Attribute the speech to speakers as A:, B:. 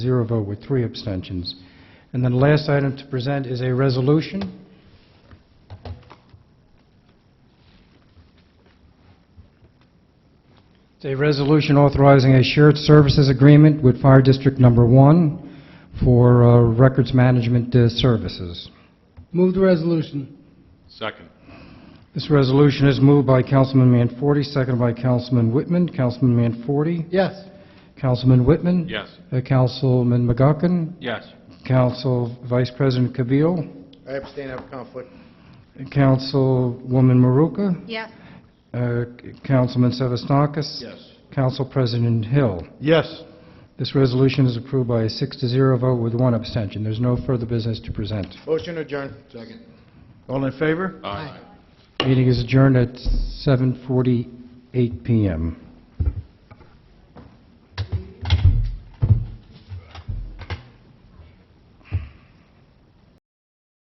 A: Zero vote with three abstentions. And then the last item to present is a resolution. It's a resolution authorizing a shared services agreement with Fire District Number One for uh, records management uh, services.
B: Move the resolution.
C: Second.
A: This resolution is moved by Councilman Manforty, seconded by Councilman Whitman. Councilman Manforty?
B: Yes.
A: Councilman Whitman?
C: Yes.
A: Uh, Councilman McGuckin?
C: Yes.
A: Council Vice President Cabeal?
D: I abstain, I have a conflict.
A: Councilwoman Maruka,
E: Yes,
A: uh, Councilman Sevastakis.
C: Yes.
A: Council President Hill.
C: Yes.
A: This resolution is approved by a six to zero vote with one abstention. There's no further business to present.
D: Motion adjourned. Second.
C: All in favor? Aye.
A: Meeting is adjourned at 7:48 PM.